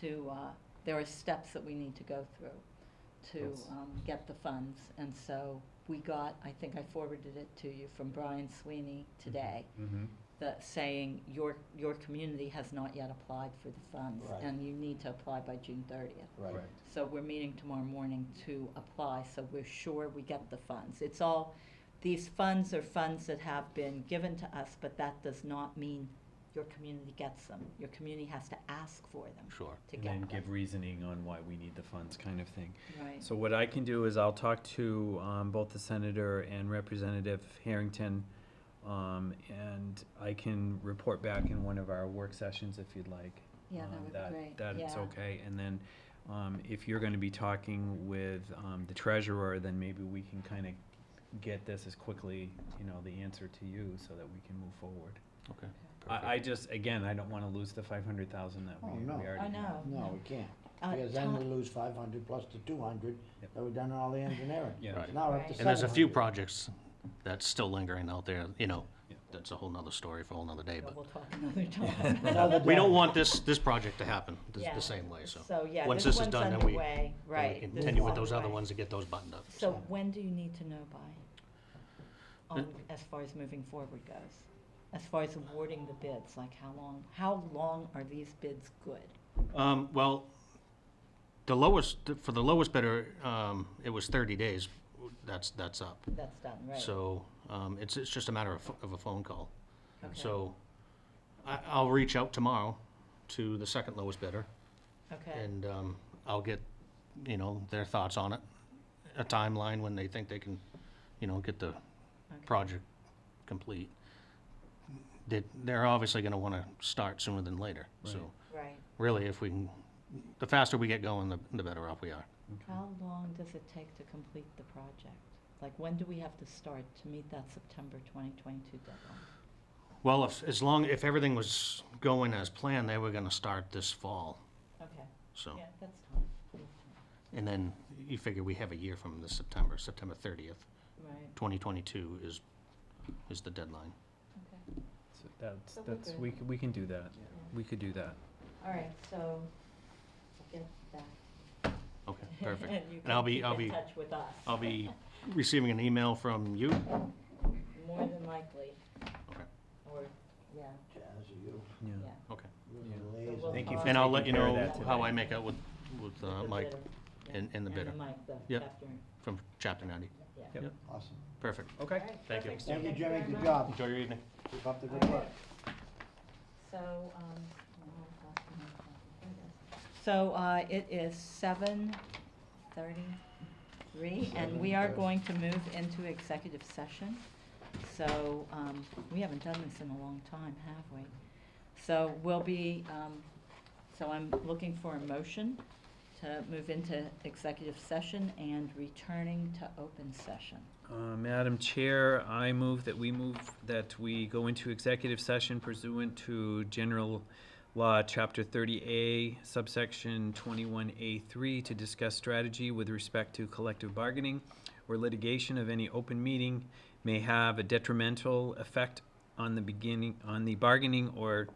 to, uh, there are steps that we need to go through to Yes. um, get the funds. And so we got, I think I forwarded it to you from Brian Sweeney today, Mm-hmm. that saying your, your community has not yet applied for the funds. Right. And you need to apply by June thirtieth. Right. So we're meeting tomorrow morning to apply, so we're sure we get the funds. It's all, these funds are funds that have been given to us, but that does not mean your community gets them. Your community has to ask for them Sure. to And then get give them. reasoning on why we need the funds kind of thing. Right, So what I can do is I'll talk to, um, both the senator and Representative Harrington, um, and I can report back in one of our work sessions if you'd like. yeah, um, that would be great, That it's yeah. okay, and then, um, if you're gonna be talking with, um, the treasurer, then maybe we can kinda get this as quickly, you know, the answer to you, so that we can move forward. Okay. I, I just, again, I don't wanna lose the five hundred thousand that we, Oh, we no. already have. I know. No, we can't, Uh, because then we Tom- lose five hundred plus the two hundred Yep. that we've done all the engineering. Yeah. Right. Now we're up to Right. And there's a few 700. projects that's still lingering out there, you know, Yeah. that's a whole nother story for a whole nother day, But but We'll talk another time. Another we don't day. want this, this project to happen the, Yeah. the same way, so. So, yeah, Once this this is one's done, then we- underway, then we right. this Continue is with those other underway. ones to get those buttoned up. So when do you need to know by, on, Uh, as far as moving forward goes? As far as awarding the bids, like how long, how long are these bids good? Um, well, the lowest, for the lowest bidder, um, it was thirty days, that's, that's up. That's done, right? So, um, it's, it's just a matter of, of a phone call. Okay. So, I, I'll reach out tomorrow to the second lowest bidder, Okay, and, um, I'll get, you know, their thoughts on it, a timeline when they think they can, you know, get the project complete. They, they're obviously gonna wanna start sooner than later, so, Right. right. really, if we can, the faster we get going, the, the better off we are. How long does it take to complete the project? Like, when do we have to start to meet that September 2022 deadline? Well, if, as long, if everything was going as planned, they were gonna start this fall, Okay, so. yeah, that's time. We have time. And then you figure we have a year from this September, September thirtieth, Right, twenty twenty-two is, is the deadline. okay. So That's, So we're that's, good. we, c- we can do that, we could do that. All right, so get that. Okay, perfect. And you And I'll can be- keep I'll in be- touch with us, I'll be receiving an email from you. more than likely. Okay. Or, yeah, As you, Yeah. yeah. you're Yeah. the So liaison. we'll Thank you follow for up And I'll let you taking care of know that how I today. make out with, with with uh, the Mike bidder, yeah. and, and the bidder And the Mike, the Yep. chapter, from chapter ninety. yeah. Yep. Awesome. Perfect. Okay. All right, Thank you. perfect. Thank you, Jimmy, very good much. job. Enjoy your evening. Keep up the All good right. work. So, um, so, uh, it is seven thirty-three, and we are 7:30. going to move into executive session. So, um, we haven't done this in a long time, have we? So we'll be, um, so I'm looking for a motion to move into executive session and returning to open session. Uh, Madam Chair, I move that we move, that we go into executive session pursuant to General Law, Chapter thirty A, subsection twenty-one A three, to discuss strategy with respect to collective bargaining or litigation of any open meeting may have a detrimental effect on the beginning, on the bargaining or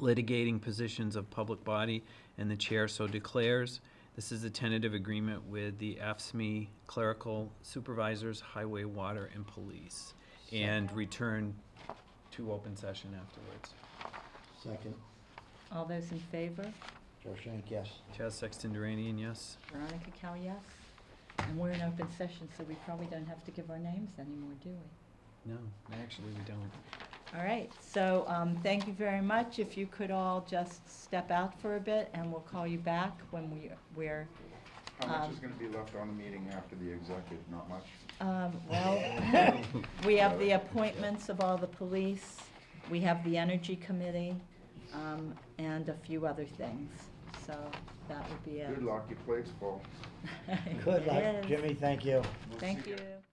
litigating positions of public body, and the chair so declares. This is a tentative agreement with the AFSME E clerical supervisors, highway, water, and police, and return to open session afterwards. Second, All those in favor? Joe Shank, yes. Chaz Sexton Duranian, yes? Veronica Cal, yes. And we're in open session, so we probably don't have to give our names anymore, do we? No, actually, we don't. All right, so um, thank you very much. If you could all just step out for a bit, and we'll call you back when we, we're, How much Um, is gonna be left on the meeting after the executive? Not much. um, well, we have the appointments of all the police, we have the energy committee, um, and a few other things. So that would be it. Good luck, your plate's full. It Good luck, is. Jimmy, thank you. We'll Thank see ya. you.